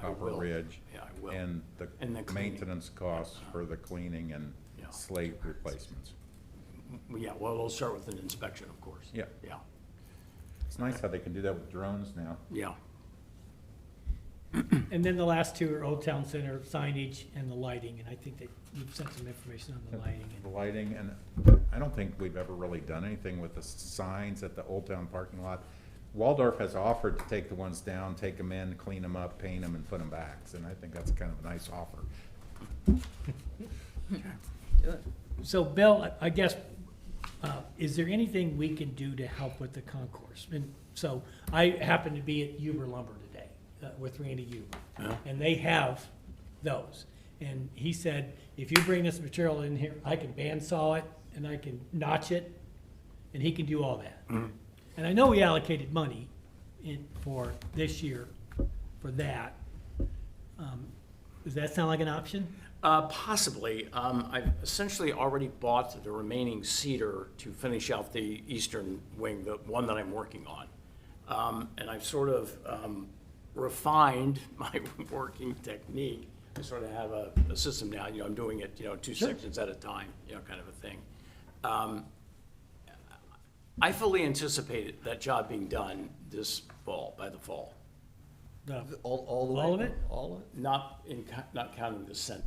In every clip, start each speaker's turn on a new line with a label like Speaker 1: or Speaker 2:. Speaker 1: Copper
Speaker 2: will.
Speaker 1: Ridge.
Speaker 2: Yeah, I will.
Speaker 1: And
Speaker 2: And the
Speaker 1: the
Speaker 2: cleaning.
Speaker 1: maintenance costs for the cleaning and
Speaker 2: Yeah.
Speaker 1: slate replacements.
Speaker 2: Yeah, well, we'll start with an inspection, of course.
Speaker 1: Yeah.
Speaker 2: Yeah,
Speaker 1: It's nice how they can do that with drones now.
Speaker 2: yeah,
Speaker 3: And then the last two are Old Town Center signage and the lighting, and I think that you've sent some information on the lighting.
Speaker 1: The
Speaker 3: and-
Speaker 1: lighting, and I don't think we've ever really done anything with the signs at the Old Town parking lot. Waldorf has offered to take the ones down, take them in, clean them up, paint them, and put them back, and I think that's kind of a nice offer.
Speaker 3: So Bill, I- I guess, uh, is there anything we can do to help with the concourse? And so I happened to be at Uber Lumber today uh, with Randy
Speaker 2: Yeah.
Speaker 3: Uber. And they have those. And he said, if you bring this material in here, I can bandsaw it and I can notch it, and he can do all that. And I know we allocated money in, for this year for that. Um, Does that sound like an option?
Speaker 2: Uh, Possibly. Um, I've essentially already bought the remaining cedar to finish out the eastern wing, the one that I'm working on. Um, And I've sort of um, refined my working technique. I sort of have a a system now, you know, I'm doing it, you know, two sections at a time, you know, kind of a thing. Um, I fully anticipated that job being done this fall, by the fall.
Speaker 3: No.
Speaker 2: All, all the
Speaker 3: way? All of it?
Speaker 2: All of it? Not in, co- not counting the center.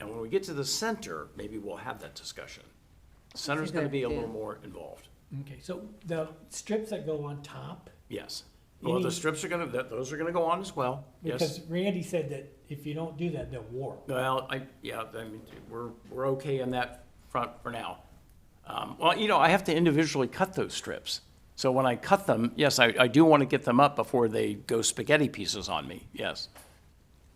Speaker 2: And when we get to the center, maybe we'll have that discussion. Center's gonna be a little more involved,
Speaker 3: Okay, so the strips that go on top,
Speaker 2: yes. Well, the
Speaker 3: Any-
Speaker 2: strips are gonna, th- those are gonna go on as well, yes.
Speaker 3: because Randy said that if you don't do that, they'll warp.
Speaker 2: Well, I, yeah, I mean, we're, we're okay on that front for now. Um, Well, you know, I have to individually cut those strips. So when I cut them, yes, I, I do wanna get them up before they go spaghetti pieces on me, yes.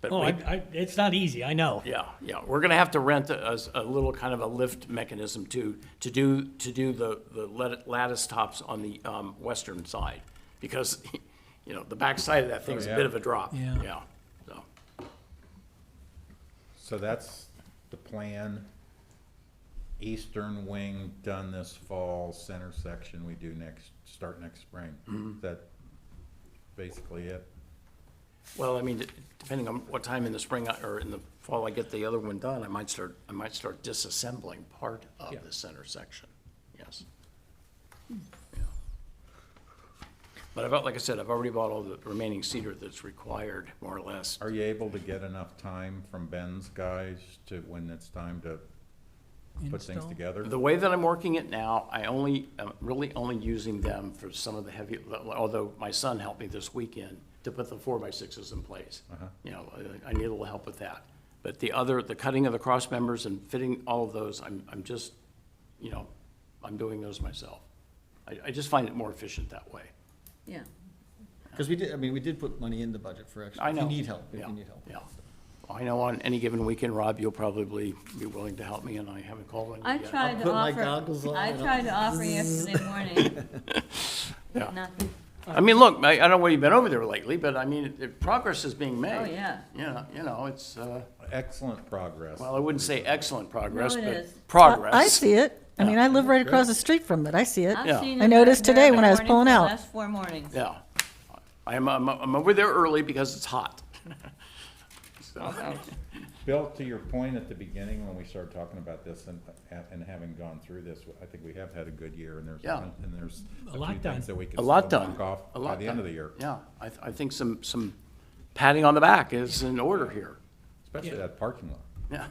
Speaker 2: But
Speaker 3: Oh, I,
Speaker 2: we-
Speaker 3: I, it's not easy, I know.
Speaker 2: Yeah, yeah, we're gonna have to rent a, a- a little kind of a lift mechanism to, to do, to do the, the lat- lattice tops on the, um, western side. Because, you know, the backside of that thing's a
Speaker 1: Oh, yeah.
Speaker 2: bit of a drop,
Speaker 3: Yeah.
Speaker 2: yeah, so,
Speaker 1: So that's the plan. Eastern wing done this fall, center section we do next, start next spring.
Speaker 2: Mm-hmm.
Speaker 1: That basically it.
Speaker 2: well, I mean, depending on what time in the spring I- or in the fall I get the other one done, I might start, I might start disassembling part of
Speaker 1: Yeah. Hmm.
Speaker 2: the center section, yes. Yeah. But I've, al- like I said, I've already bought all the remaining cedar that's required, more or less.
Speaker 1: Are you able to get enough time from Ben's guys to, when it's time to put things
Speaker 3: Install?
Speaker 1: together?
Speaker 2: The way that I'm working it now, I only, I'm really only using them for some of the heavy, although my son helped me this weekend to put the four by sixes in place.
Speaker 4: Uh-huh.
Speaker 2: You know, I I need a little help with that. But the other, the cutting of the cross members and fitting all of those, I'm, I'm just, you know, I'm doing those myself. I, I just find it more efficient that way.
Speaker 5: Yeah,
Speaker 4: Because we did, I mean, we did put money in the budget for extra,
Speaker 2: I
Speaker 4: if
Speaker 2: know.
Speaker 4: you need help, if
Speaker 2: Yeah,
Speaker 4: you need help.
Speaker 2: Yeah. I know on any given weekend, Rob, you'll probably be willing to help me and I haven't called on you
Speaker 5: I
Speaker 2: yet.
Speaker 5: tried to
Speaker 4: put my
Speaker 5: offer,
Speaker 4: goggles on
Speaker 5: I
Speaker 4: and I'll-
Speaker 5: tried to offer yesterday morning.
Speaker 2: Yeah.
Speaker 5: Nothing.
Speaker 2: I mean, look, I, I don't know where you've been over there lately, but I mean, it- it- progress is being made.
Speaker 5: Oh, yeah.
Speaker 2: Yeah, you know, it's, uh,
Speaker 1: Excellent progress.
Speaker 2: well, I wouldn't say excellent progress,
Speaker 5: No, it
Speaker 2: but
Speaker 5: is.
Speaker 2: progress.
Speaker 6: I see it. I mean, I live right across the street from it. I see it.
Speaker 2: Yeah.
Speaker 5: I've seen
Speaker 6: I
Speaker 5: it
Speaker 6: noticed
Speaker 5: every
Speaker 6: today when I was
Speaker 5: morning
Speaker 6: pulling
Speaker 5: for the
Speaker 6: out.
Speaker 5: Last four mornings.
Speaker 2: Yeah. I'm, I'm, I'm over there early because it's hot. So,
Speaker 1: Bill, to your point at the beginning, when we started talking about this and, and having gone through this, I think we have had a good year and there's,
Speaker 2: Yeah.
Speaker 1: and there's a
Speaker 3: A lot
Speaker 1: few
Speaker 3: done.
Speaker 1: things that we can
Speaker 2: A
Speaker 1: still
Speaker 2: lot done.
Speaker 1: knock off
Speaker 2: A
Speaker 1: by
Speaker 2: lot
Speaker 1: the end
Speaker 2: done.
Speaker 1: of the year.
Speaker 2: Yeah, I, I think some, some patting on the back is in order here.
Speaker 1: Especially that parking lot.
Speaker 2: Yeah.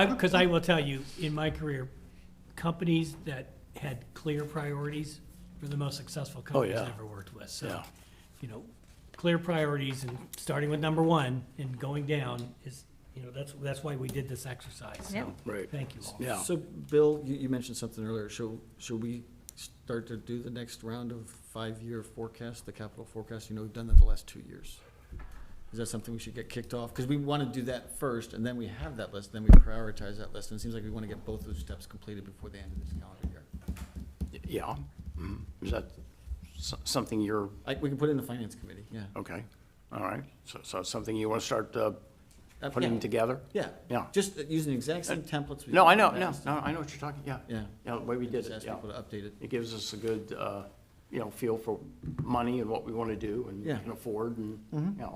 Speaker 3: Because I will tell you, in my career, companies that had clear priorities were the most successful companies
Speaker 2: Oh, yeah.
Speaker 3: I ever worked with. So,
Speaker 2: Yeah.
Speaker 3: you know, clear priorities and starting with number one and going down is, you know, that's, that's why we did this exercise.
Speaker 5: Yep.
Speaker 3: So,
Speaker 2: Right.
Speaker 3: thank you all.
Speaker 2: Yeah.
Speaker 4: So, Bill, you, you mentioned something earlier, should, should we start to do the next round of five-year forecast, the capital forecast? You know, we've done that the last two years. Is that something we should get kicked off? Because we want to do that first, and then we have that list, then we prioritize that list, and it seems like we want to get both those steps completed before the end of this calendar year.
Speaker 2: Yeah. Mhm. Is that so- something you're,
Speaker 4: I, we can put it in the finance committee, yeah.
Speaker 2: okay, all right. So, so it's something you want to start, uh,
Speaker 4: Uh,
Speaker 2: putting
Speaker 4: yeah.
Speaker 2: together?
Speaker 4: Yeah.
Speaker 2: Yeah.
Speaker 4: Just uh, using the exact same templates. we
Speaker 2: No, I
Speaker 4: used
Speaker 2: know,
Speaker 4: in the
Speaker 2: no,
Speaker 4: past.
Speaker 2: no, I know what you're talking, yeah.
Speaker 4: Yeah.
Speaker 2: Yeah, the way we did
Speaker 4: Just
Speaker 2: it,
Speaker 4: ask
Speaker 2: yeah.
Speaker 4: people to update it.
Speaker 2: It gives us a good, uh, you know, feel for money and what we want to do and
Speaker 4: Yeah. Mm-hmm.
Speaker 2: can afford and, you know,